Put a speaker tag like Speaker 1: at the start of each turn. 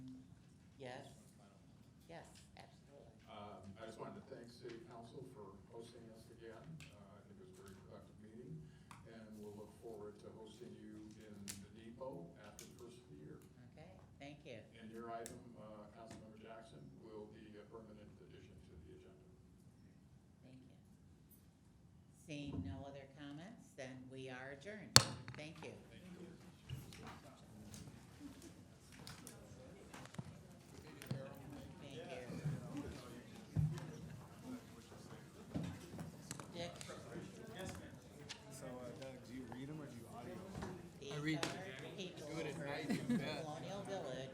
Speaker 1: Yes. Yes, absolutely.
Speaker 2: Um, I just wanted to thank City Council for hosting us again. Uh, I think it was a very productive meeting, and we'll look forward to hosting you in the depot after the first of the year.
Speaker 1: Okay, thank you.
Speaker 2: And your item, uh, Councilmember Jackson, will be a permanent addition to the agenda.
Speaker 1: Thank you. Seeing no other comments, then we are adjourned. Thank you.